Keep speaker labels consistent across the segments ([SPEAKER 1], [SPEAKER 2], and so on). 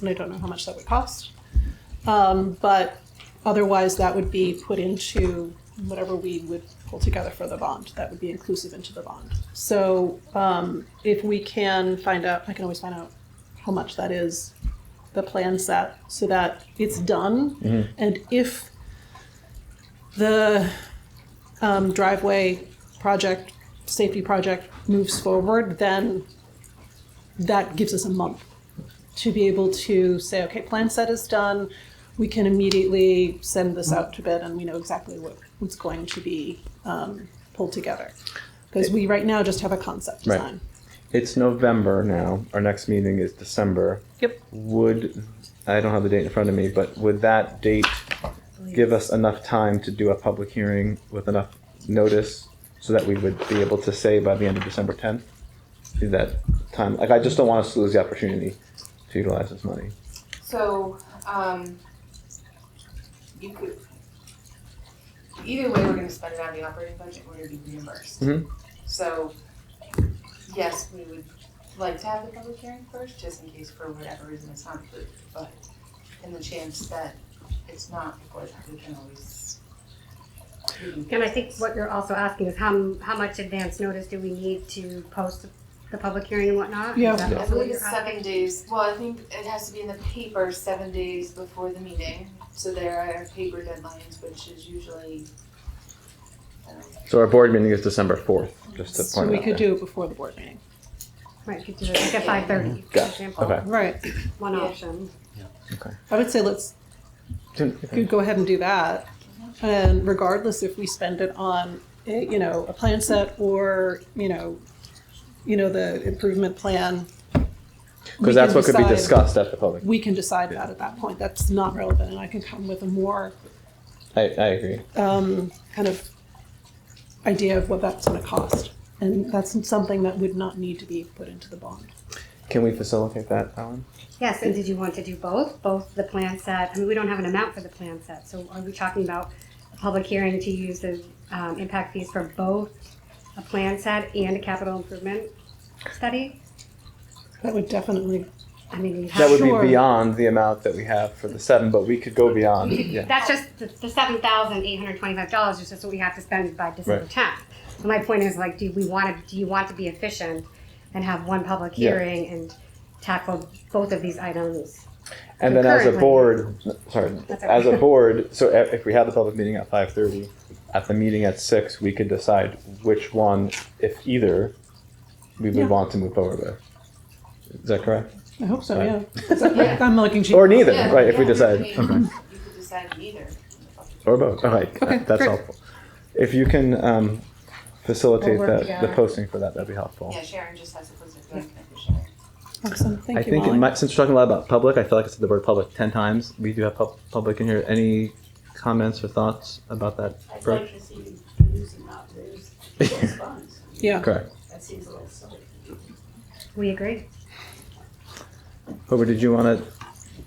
[SPEAKER 1] and I don't know how much that would cost. Um, but otherwise, that would be put into whatever we would pull together for the bond. That would be inclusive into the bond. So um, if we can find out, I can always find out how much that is, the plan set, so that it's done. And if the um, driveway project, safety project moves forward, then that gives us a month to be able to say, okay, plan set is done. We can immediately send this out to bid, and we know exactly what, what's going to be um, pulled together. Because we right now just have a concept
[SPEAKER 2] Right.
[SPEAKER 1] design.
[SPEAKER 2] It's November now. Our next meeting is December.
[SPEAKER 1] Yep.
[SPEAKER 2] Would I don't have the date in front of me, but would that date give us enough time to do a public hearing with enough notice so that we would be able to say by the end of December 10th? Is that time? Like I just don't want us to lose the opportunity to utilize this money.
[SPEAKER 3] So, um, you could, either way, we're gonna spend it out of the operating budget, we're gonna be reimbursed.
[SPEAKER 2] Mhm.
[SPEAKER 3] So, yes, we would like to have the public hearing first, just in case for whatever reason it's not approved, but in the chance that it's not before that, we can always. we can-
[SPEAKER 4] And I think what you're also asking is how, how much advance notice do we need to post the public hearing and whatnot? Is
[SPEAKER 1] Yeah.
[SPEAKER 4] that
[SPEAKER 3] I
[SPEAKER 4] also what
[SPEAKER 3] believe
[SPEAKER 4] you're
[SPEAKER 3] it's
[SPEAKER 4] asking?
[SPEAKER 3] seven days, well, I think it has to be in the paper seven days before the meeting, so there are paper deadlines, which is usually, um,
[SPEAKER 2] So our board meeting is December 4th. Just to point
[SPEAKER 1] So we
[SPEAKER 2] it out
[SPEAKER 1] could
[SPEAKER 2] there.
[SPEAKER 1] do it before the board meeting.
[SPEAKER 4] Right, you could do it like at five thirty, for
[SPEAKER 2] Mm-hmm. Got it.
[SPEAKER 4] example,
[SPEAKER 2] Okay.
[SPEAKER 1] Right.
[SPEAKER 4] one
[SPEAKER 3] Yeah.
[SPEAKER 4] option.
[SPEAKER 1] I would say let's could go ahead and do that. And regardless if we spend it on, eh, you know, a plan set or, you know, you know, the improvement plan. we
[SPEAKER 2] because that's
[SPEAKER 1] can
[SPEAKER 2] what could be
[SPEAKER 1] decide-
[SPEAKER 2] discussed at the public.
[SPEAKER 1] We can decide that at that point. That's not relevant and I can come with a more
[SPEAKER 2] I, I agree.
[SPEAKER 1] kind of idea of what that's gonna cost. And that's something that would not need to be put into the bond.
[SPEAKER 2] Can we facilitate that, Alan?
[SPEAKER 4] Yes, and did you want to do both, both the plan set, I mean, we don't have an amount for the plan set, so are we talking about a public hearing to use the, um, impact fees for both a plan set and a capital improvement study?
[SPEAKER 1] That would definitely,
[SPEAKER 4] I mean, you
[SPEAKER 2] That
[SPEAKER 4] have,
[SPEAKER 2] would
[SPEAKER 1] Sure.
[SPEAKER 2] be beyond the amount that we have for the seven, but we could go beyond. Yeah.
[SPEAKER 4] that's just, the, the seven thousand eight hundred twenty-five dollars is just what we have to spend by December
[SPEAKER 2] Right.
[SPEAKER 4] tenth. So my point is like, do we want to, do you want to be efficient and have one public
[SPEAKER 2] Yeah.
[SPEAKER 4] hearing and tackle both of these items?
[SPEAKER 2] And then as a
[SPEAKER 4] Concurrently.
[SPEAKER 2] board, sorry,
[SPEAKER 4] That's all
[SPEAKER 2] as a
[SPEAKER 4] right.
[SPEAKER 2] board, so e, if if we had the public meeting at five thirty, at the meeting at six, we could decide which one, if either, we
[SPEAKER 1] Yeah.
[SPEAKER 2] would want to move forward with. Is that correct?
[SPEAKER 1] I hope so,
[SPEAKER 2] Right.
[SPEAKER 1] yeah. I'm looking to.
[SPEAKER 2] Or neither,
[SPEAKER 3] Yeah,
[SPEAKER 2] right, if we
[SPEAKER 3] um, yeah,
[SPEAKER 2] decide,
[SPEAKER 3] I mean, You could decide either.
[SPEAKER 2] or both, all right,
[SPEAKER 1] Okay,
[SPEAKER 2] that's
[SPEAKER 1] great.
[SPEAKER 2] helpful. If you can, um,
[SPEAKER 1] We'll
[SPEAKER 2] facilitate
[SPEAKER 1] work
[SPEAKER 2] that, the
[SPEAKER 1] together.
[SPEAKER 2] posting for that, that'd be helpful.
[SPEAKER 3] Yeah, Sharon just has to post it, like, for Sharon.
[SPEAKER 1] Awesome, thank you,
[SPEAKER 2] I think it
[SPEAKER 1] Molly.
[SPEAKER 2] might, since we're talking a lot about public, I feel like I said the word public ten times. We do have pub- public in here. Any comments or thoughts about that?
[SPEAKER 5] I'd
[SPEAKER 2] approach?
[SPEAKER 5] like to see you using not those those funds.
[SPEAKER 1] Yeah,
[SPEAKER 2] Correct.
[SPEAKER 5] That seems a little silly.
[SPEAKER 4] We agree?
[SPEAKER 2] Hoover, did you want to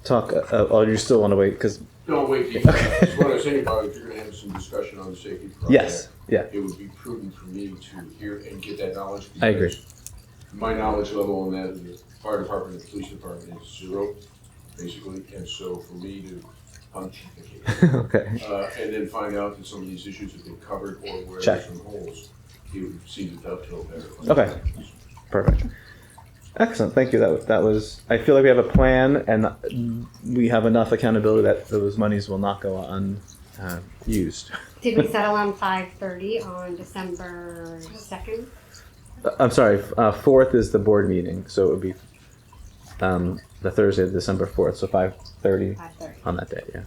[SPEAKER 2] talk? Uh, uh, oh, you still want to wait? Because
[SPEAKER 6] Don't wait to, that's what I was saying about if you're gonna have some discussion on the safety project.
[SPEAKER 2] yes, yeah,
[SPEAKER 6] It would be prudent for me to hear and get that knowledge.
[SPEAKER 2] I agree.
[SPEAKER 6] because My knowledge level on that, in the fire department and police department is zero, basically, and so for me to punch,
[SPEAKER 2] okay,
[SPEAKER 6] uh, and then find out that some of these issues have been covered or where
[SPEAKER 2] Check.
[SPEAKER 6] there's some holes, it would seem to dovetail better.
[SPEAKER 2] Okay. perfect, excellent. Thank you. That wa- that was. I feel like we have a plan, and uh, we have enough accountability that those monies will not go uh, unused.
[SPEAKER 4] Did we settle on five thirty on December second?
[SPEAKER 2] Uh, I'm sorry. f- Uh, fourth is the board meeting, so it would be um, the Thursday of December fourth, so five thirty
[SPEAKER 4] Five thirty,
[SPEAKER 2] on that day. Yeah.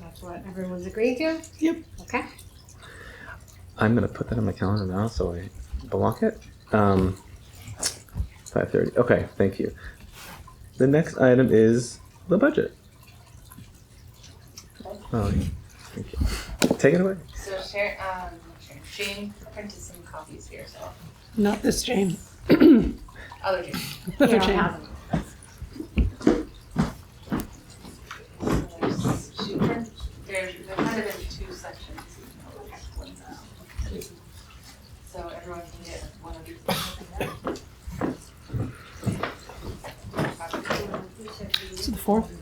[SPEAKER 4] that's what everyone's agreed to?
[SPEAKER 1] Yep.
[SPEAKER 4] Okay,
[SPEAKER 2] I'm gonna put that on my calendar now so I block it. Um, five thirty. Okay, thank you. The next item is the budget. Oh, thank you. Take it away.
[SPEAKER 3] So Sharon, um, Sharon, Jane printed some copies for yourself,
[SPEAKER 1] not this Jane,
[SPEAKER 3] other Jane.
[SPEAKER 4] you
[SPEAKER 1] other
[SPEAKER 4] don't
[SPEAKER 1] Jane.
[SPEAKER 4] have them.
[SPEAKER 3] There's- She printed, there's, there might have been two sections. One's out. So everyone can get one of these.
[SPEAKER 1] So the fourth?